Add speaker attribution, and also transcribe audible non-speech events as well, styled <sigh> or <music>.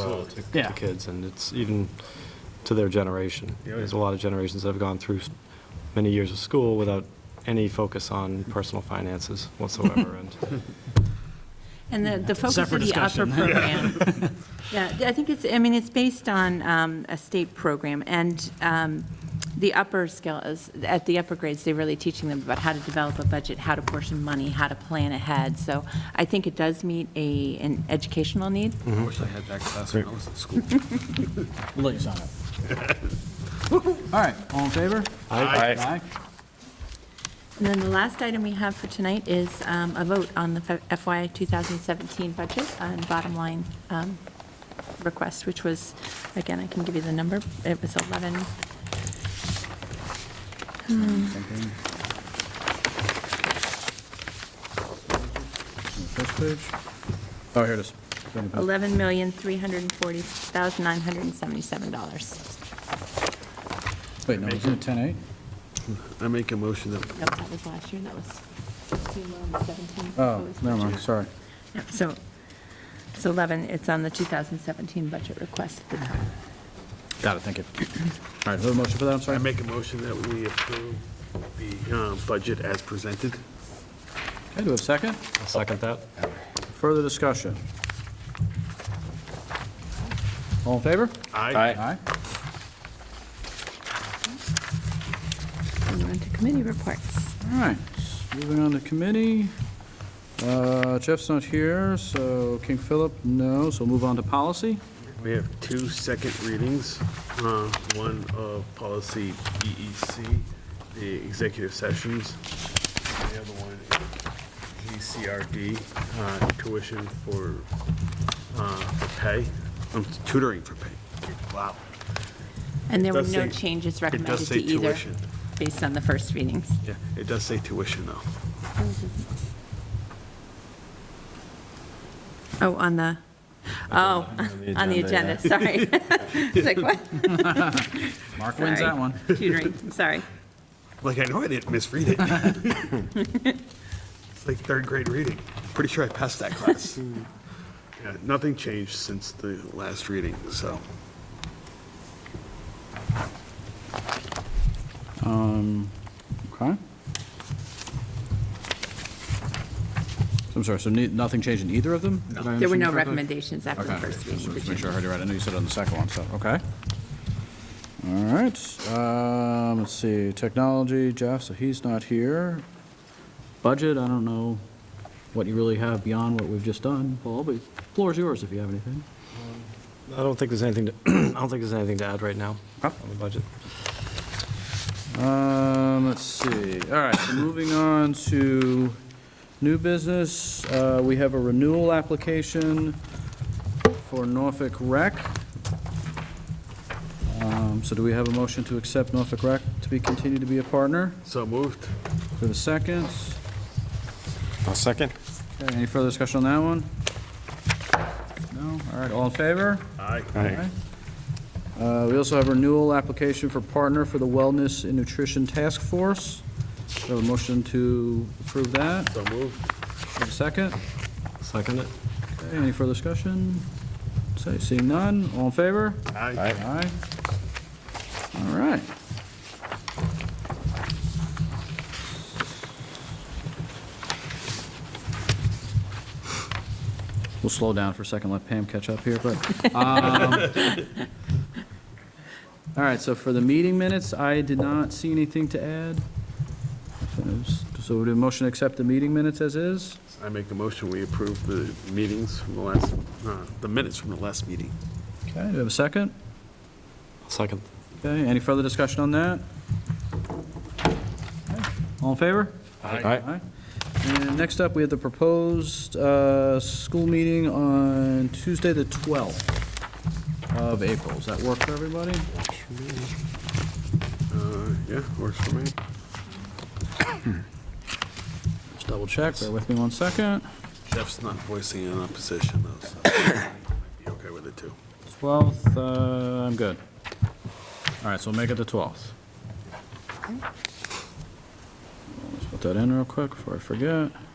Speaker 1: uh, to-
Speaker 2: Yeah.
Speaker 1: to kids, and it's even to their generation.
Speaker 3: Yeah,
Speaker 1: There's a
Speaker 3: yeah.
Speaker 1: lot of generations that have gone through s- many years of school without any focus on personal finances whatsoever, and
Speaker 4: And the, the focus of
Speaker 2: Separate
Speaker 4: the upper
Speaker 2: discussion.
Speaker 4: program.
Speaker 2: <laughs>
Speaker 4: Yeah, I think it's, I mean, it's based on um, a state program, and um, the upper skill is, at the upper grades, they're really teaching them about how to develop a budget, how to portion money, how to plan ahead. So I think it does meet a, an educational need.
Speaker 3: I wish I had that class when I was in school.
Speaker 2: We'll let you sign it. All right, all in favor?
Speaker 3: Aye.
Speaker 2: Aye.
Speaker 4: And then the last item we have for tonight is um, a vote on the FY 2017 budget and bottom line um, request, which was, again, I can give you the number, it was 11,
Speaker 3: Something. First page? Oh, here it is.
Speaker 4: $11,340,977.
Speaker 2: Wait, no, isn't it 10-8?
Speaker 3: I make a motion that,
Speaker 4: Nope, that was last year, that was 16, well, on the 17.
Speaker 2: Oh,
Speaker 4: It was
Speaker 2: never mind,
Speaker 4: budget.
Speaker 2: sorry.
Speaker 4: Yeah, So, it's 11, it's on the 2017 budget request at the top.
Speaker 2: Got it, thank you. All right, who have a motion for that, I'm
Speaker 3: I
Speaker 2: sorry?
Speaker 3: make a motion that we approve the uh, budget as presented.
Speaker 2: Okay, do we have a second?
Speaker 1: I'll second that.
Speaker 2: Further discussion? All in favor?
Speaker 3: Aye.
Speaker 4: And we're on to committee reports.
Speaker 2: All right, moving on to committee. Uh, Jeff's not here, so King Philip, no, so move on to policy.
Speaker 3: We have two second readings, uh, one of policy EEC, the executive sessions, and the other one, GCRD, uh, tuition for uh, for pay, um, tutoring for pay. Wow.
Speaker 4: And there were
Speaker 3: does
Speaker 4: no
Speaker 3: say-
Speaker 4: changes
Speaker 3: It
Speaker 4: recommended
Speaker 3: does
Speaker 4: to
Speaker 3: say
Speaker 4: either,
Speaker 3: tuition.
Speaker 4: based on the first readings.
Speaker 3: Yeah, it does say tuition, though.
Speaker 4: Oh, on the, oh, on the agenda, sorry.
Speaker 2: <laughs>
Speaker 4: It's like, what?
Speaker 2: Mark wins that
Speaker 4: Sorry.
Speaker 2: one.
Speaker 4: Tutoring, sorry.
Speaker 3: Like, I know I didn't misread it. It's like third grade reading. Pretty sure I passed that class. Yeah, Nothing changed since the last reading, so.
Speaker 2: Um, okay. So I'm sorry, so ne- nothing changed in either of them? Did I
Speaker 4: There were
Speaker 2: understand
Speaker 4: no
Speaker 2: correctly?
Speaker 4: recommendations after the
Speaker 2: Okay,
Speaker 4: first
Speaker 2: just
Speaker 4: reading.
Speaker 2: wanted
Speaker 4: did
Speaker 2: to
Speaker 4: you?
Speaker 2: make sure I heard you right. I know you said it on the second one, so, okay. All right, um, let's see, technology, Jeff, so he's not here. Budget, I don't know what you really have beyond what we've just done, Paul, but floor's yours if you have anything.
Speaker 1: I don't think there's anything, to <clears throat> I don't think there's anything to add right now on
Speaker 2: Okay.
Speaker 1: the budget.
Speaker 2: Um, let's see, all right, so moving on to new business, uh, we have a renewal application for Norfolk Rec. Um, so do we have a motion to accept Norfolk Rec to be, continued to be a partner?
Speaker 3: So moved.
Speaker 2: Do we have a second?
Speaker 1: I'll second.
Speaker 2: Okay, any further discussion on that one? No, all right, all in favor?
Speaker 3: Aye.
Speaker 2: Uh, We also have a renewal application for partner for the Wellness and Nutrition Task Force. So a motion to approve that.
Speaker 3: So moved.
Speaker 2: Have a second?
Speaker 1: Second it.
Speaker 2: Okay, Any further discussion? Say- Seeing none, all in favor?
Speaker 3: Aye.
Speaker 2: Aye. All right. We'll slow down for a second, let Pam catch up here, but. um, <laughs> All right, so for the meeting minutes, I did not see anything to add. So the motion to accept the meeting minutes as is?
Speaker 3: I make a motion, we approve the meetings from the last, uh, the minutes from the last meeting.
Speaker 2: Okay, do we have a second?
Speaker 1: I'll Second.
Speaker 2: Okay, any further discussion on that? All in favor? Aye. And next up, we have the proposed uh, school meeting on Tuesday, the 12th of April. Does that work for everybody?
Speaker 3: Uh, Yeah, works for me.
Speaker 2: Just double check, bear with me one second.
Speaker 3: Jeff's not voicing an opposition, though, so might be okay with it, too.
Speaker 2: 12th, uh, I'm good. All right, so we'll make it the 12th. Let's put that in real quick before I forget.